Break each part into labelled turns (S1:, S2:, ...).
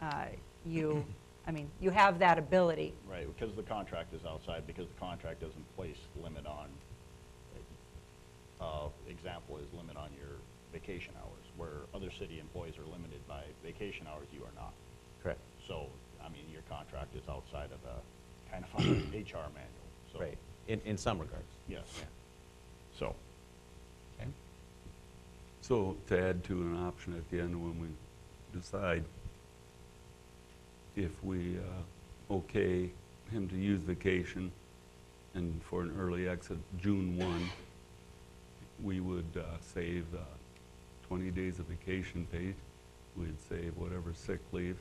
S1: uh, you, I mean, you have that ability.
S2: Right, because the contract is outside, because the contract doesn't place limit on, uh, example is limit on your vacation hours, where other city employees are limited by vacation hours, you are not.
S3: Correct.
S2: So, I mean, your contract is outside of the, kind of an HR manual, so.
S3: Right, in, in some regards.
S2: Yes,
S3: Yeah.
S2: so,
S3: Okay.
S4: So to add to an option at the end when we decide if we uh, okay him to use vacation and for an early exit, June 1, we would uh, save uh, 20 days of vacation pay. We'd save whatever sick leave.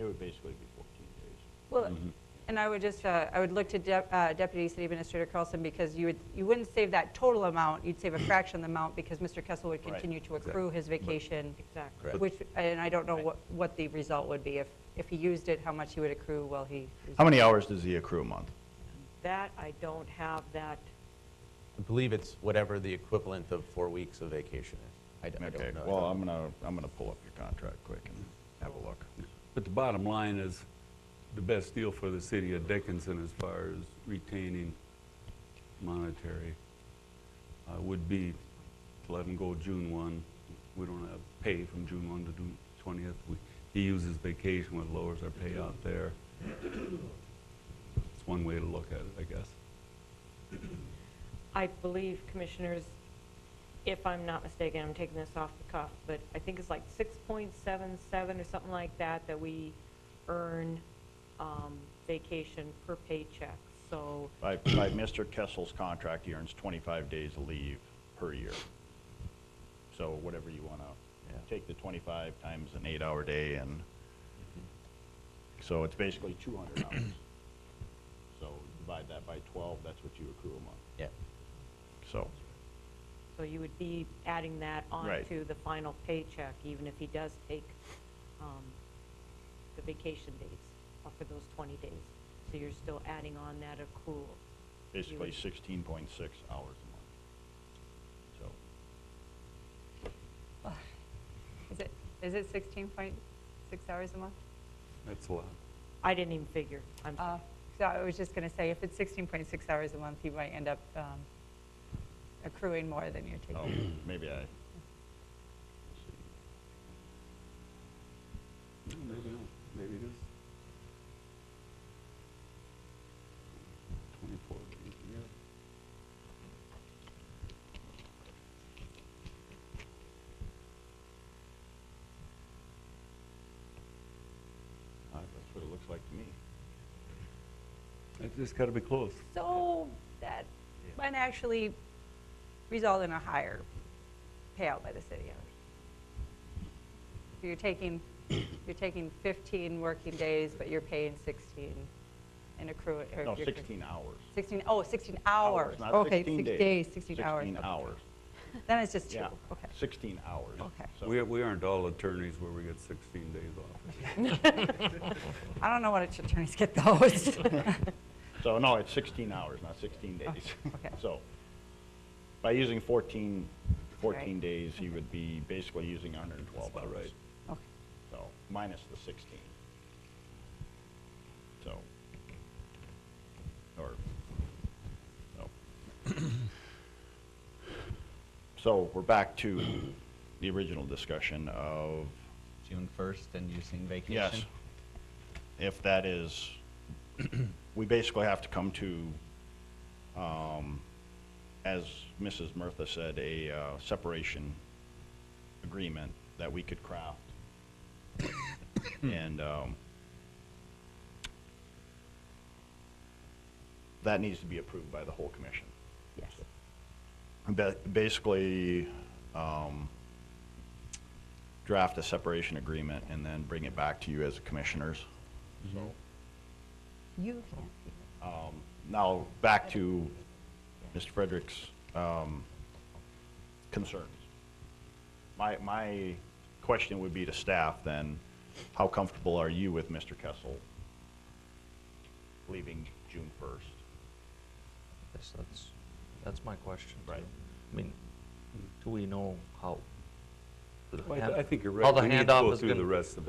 S2: it would basically be fourteen days.
S1: Well,
S2: Mm-hmm.
S1: and I would just, uh, I would look to Dep- uh, Deputy City Administrator Carlson, because you would, you wouldn't save that total amount, you'd save a fraction of the amount, because Mr. Kessel would
S2: Right.
S1: continue to accrue his vacation.
S3: Correct.
S1: Which, and I don't know
S2: Right.
S1: what, what the result would be, if, if he used it, how much he would accrue while he.
S2: How many hours does he accrue a month?
S5: That, I don't have that.
S3: I believe it's whatever the equivalent of four weeks of vacation is. I d- I
S2: Okay,
S3: don't know.
S2: well, I'm gonna, I'm gonna pull up your contract quick and have a look.
S4: But the bottom line is, the best deal for the city of Dickinson as far as retaining monetary uh, would be to let him go June 1. We don't have pay from June 1 to June 20th. We- He uses vacation, which lowers our pay out there. It's one way to look at it, I guess.
S5: I believe, commissioners, if I'm not mistaken, I'm taking this off the cuff, but I think it's like 6.77 or something like that, that we earn um, vacation per paycheck. So
S2: By, by Mr. Kessel's contract, he earns 25 days of leave per year. So whatever you want
S3: Yeah.
S2: to, take the 25 times an eight-hour day and, so it's basically 200 hours. So divide that by 12, that's what you accrue a month,
S3: Yeah,
S2: so.
S5: so you would be adding that
S2: Right.
S5: onto the final paycheck, even if he does take um, the vacation days off for those 20 days. So you're still adding on that accrual.
S2: Basically
S5: would-
S2: 16.6 hours a month. So,
S1: Is it, is it 16.6 hours a month?
S4: That's a lot.
S5: I didn't even figure. I'm sorry.
S1: Uh, So I was just going to say, if it's 16.6 hours a month, you might end up um, accruing more than you're
S2: oh,
S1: taking.
S2: maybe I,
S4: Maybe not, maybe it is. 24 days, yeah.
S2: uh, that's what it looks like to me.
S4: It's got to be close.
S1: So that might actually result in a higher payout by the city. I would- You're taking, you're taking 15 working days, but you're paying 16 and accruing. or
S2: No,
S1: you're-
S2: 16 hours.
S1: 16, oh, 16 hours.
S2: Not
S1: Okay,
S2: 16
S1: six
S2: days.
S1: days, 16 hours.
S2: 16
S1: Okay.
S2: hours.
S1: Then it's just two,
S2: Yeah,
S1: okay.
S2: 16 hours.
S1: Okay.
S2: So-
S4: We, we aren't all attorneys where we get 16 days off.
S1: I don't know what attorneys get those.
S2: So, no, it's 16 hours, not 16 days.
S1: okay.
S2: So, by using 14, 14
S1: Right.
S2: days, he would be basically using 112
S4: That's
S2: hours.
S4: about right.
S1: Okay.
S2: So, minus the 16. So, or, no. So, we're back to the original discussion of,
S3: June 1st and using vacation?
S2: yes, if that is, we basically have to come to, um, as Mrs. Murtha said, a uh, separation agreement that we could craft. And um, that needs to be approved by the whole commission.
S1: Yes.
S2: Ba- Basically, um, draft a separation agreement and then bring it back to you as commissioners. So um,
S1: You can't see
S2: Now, back to Mr. Frederick's um, concerns. My, my question would be to staff then, how comfortable are you with Mr. Kessel leaving June 1st?
S6: Yes, that's, that's my question. too.
S2: Right.
S6: I mean, do we know how? the
S4: Well, I
S6: hand-
S4: th- I think you're
S6: how
S4: right.
S6: the
S4: We need to
S6: handoff
S4: go
S6: is
S4: through
S6: gonna-
S4: the rest of